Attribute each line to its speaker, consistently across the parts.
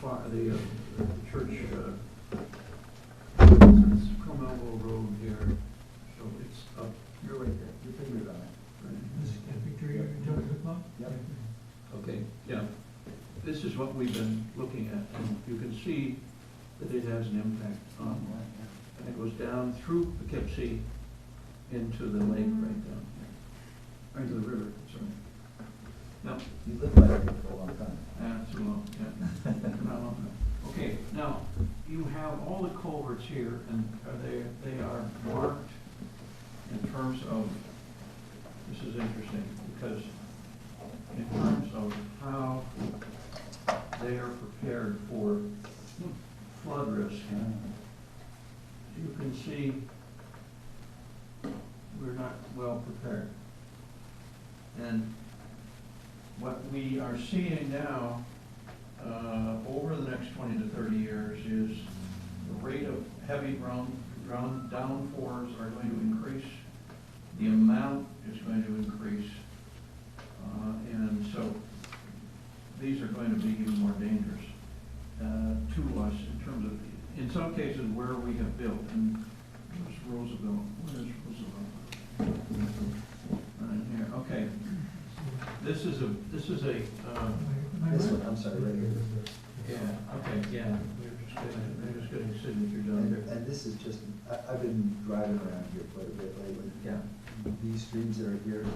Speaker 1: fire, the, uh, the church, uh, it's Cromelville Road here, so it's up,
Speaker 2: You're right there, your finger's on it.
Speaker 1: right?
Speaker 3: This is that picture you're talking about?
Speaker 2: Yep.
Speaker 1: Okay, yeah. This is what we've been looking at, and you can see that it has an impact
Speaker 2: Um,
Speaker 1: on, and it goes down through Poughkeepsie into the lake right down here, into the river, sorry. Now,
Speaker 2: You lived by it for a long time.
Speaker 1: Yeah, too long, yeah. Not long enough. Okay, now, you have all the culverts here, and are they, they are marked in terms of, this is interesting, because in terms of how they are prepared for flood risk. You can see we're not well prepared. And what we are seeing now, uh, over the next twenty to thirty years, is the rate of heavy ground, ground downpours are going to increase, the amount is going to increase, uh, and so these are going to be even more dangerous uh, to us in terms of, in some cases, where we have built, and where's Roosevelt, where's Roosevelt? Right here, okay. This is a, this is a, um,
Speaker 3: Am I
Speaker 2: This
Speaker 3: right?
Speaker 2: one, I'm sorry, right here.
Speaker 1: yeah, okay, yeah, we're just getting, we're just getting signatures down
Speaker 2: And,
Speaker 1: here.
Speaker 2: and this is just, I, I've been driving around here quite a bit lately.
Speaker 1: Yeah.
Speaker 2: These streams that are here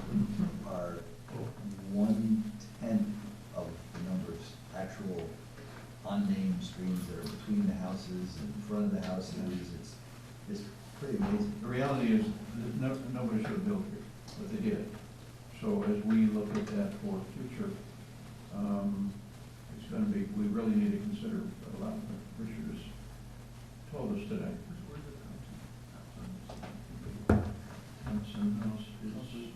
Speaker 2: are one-tenth of the number of actual unnamed streams that are between the houses, in front of the houses. It's, it's pretty amazing.
Speaker 1: The reality is, that no, nobody should have built here, but they did. So as we look at that for future, um, it's gonna be, we really need to consider a lot of what Richard has told us today. Thompson House is,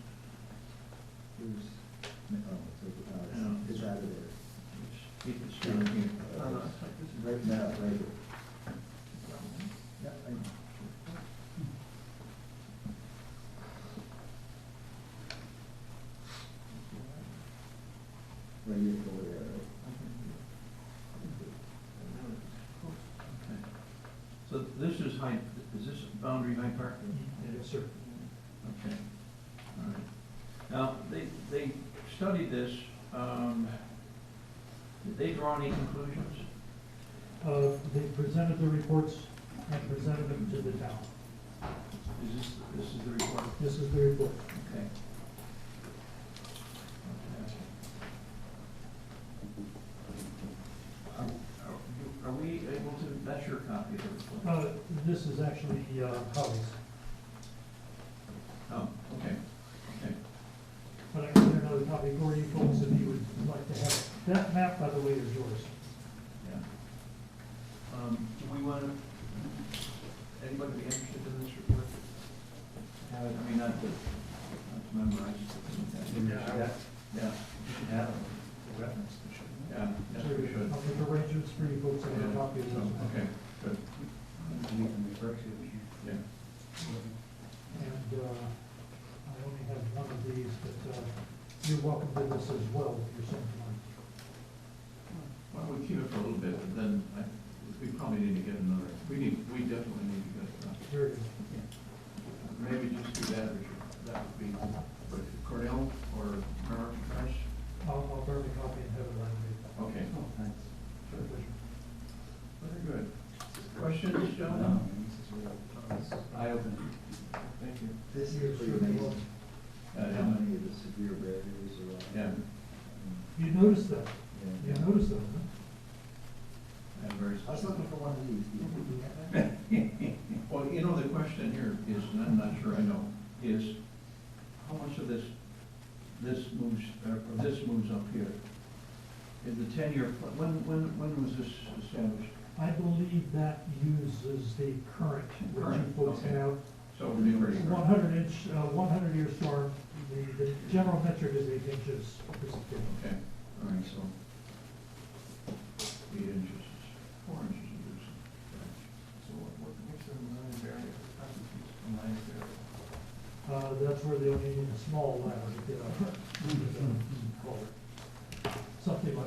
Speaker 2: Here's, oh, it's, uh, it's- it's out of there.
Speaker 1: it's, it's down here.
Speaker 2: Uh, Right now, right here. Yeah, right. Right here, over there, right?
Speaker 1: Okay. So this is Hyde, is this boundary Hyde Park?
Speaker 3: Yes, sir.
Speaker 1: Okay, all right. Now, they, they studied this, um, did they draw any conclusions?
Speaker 3: Uh, they presented the reports and presented them to the town.
Speaker 1: Is this, this is the report?
Speaker 3: This is the report.
Speaker 1: Okay. Are- Are are we able to, that's your copy of the report?
Speaker 3: Uh, this is actually, uh, Howie's,
Speaker 1: Oh, okay, okay.
Speaker 3: but I can get another copy for you folks if you would like to have it. That map, by the way, is yours.
Speaker 1: Yeah. Um, do we want to, anybody be interested in this report? Have it, I mean, not to, not to memorize.
Speaker 3: Yeah.
Speaker 1: Yeah, yeah, yeah, yes, we should.
Speaker 3: I'll make arrangements for you folks to have a copy of
Speaker 1: So,
Speaker 3: this.
Speaker 1: okay, good, yeah.
Speaker 3: And, uh, I only have one of these, but, uh, you're welcome to this as well if you're so inclined.
Speaker 1: Why don't we keep it for a little bit, and then I, we probably need to get another, we need, we definitely need to get, uh,
Speaker 3: Here it is.
Speaker 1: maybe just do that, Richard. That would be Cordell or Merrick Price?
Speaker 3: I'll, I'll burn the copy and have it right away.
Speaker 1: Okay,
Speaker 3: Sure, pleasure.
Speaker 1: very good. Questions, gentlemen?
Speaker 2: I open
Speaker 1: Thank you.
Speaker 2: it. This is pretty amazing, how many of the severe barriers are on.
Speaker 1: Uh, Yeah.
Speaker 3: You noticed that, you
Speaker 2: Yeah.
Speaker 3: noticed that, huh?
Speaker 1: And very.
Speaker 2: uh, I was looking for one of these. Do you
Speaker 3: Mm-hmm.
Speaker 2: think we have that?
Speaker 1: Well, you know, the question here is, and I'm not sure I know, is how much of this, this moves, or this moves up here? Is the ten-year, when, when, when was this established?
Speaker 3: I believe that uses the current, which you
Speaker 1: Current,
Speaker 3: folks
Speaker 1: okay.
Speaker 3: have.
Speaker 1: So it'd be pretty.
Speaker 3: One hundred inch, uh, one hundred year storm, the, the general metric is eight inches.
Speaker 1: Okay, all right, so eight inches, is four inches of this. So what, what, what's the line barrier, how does this line barrier? Mm-hmm.
Speaker 3: Uh, that's where they'll need a small ladder to get up. Culvert.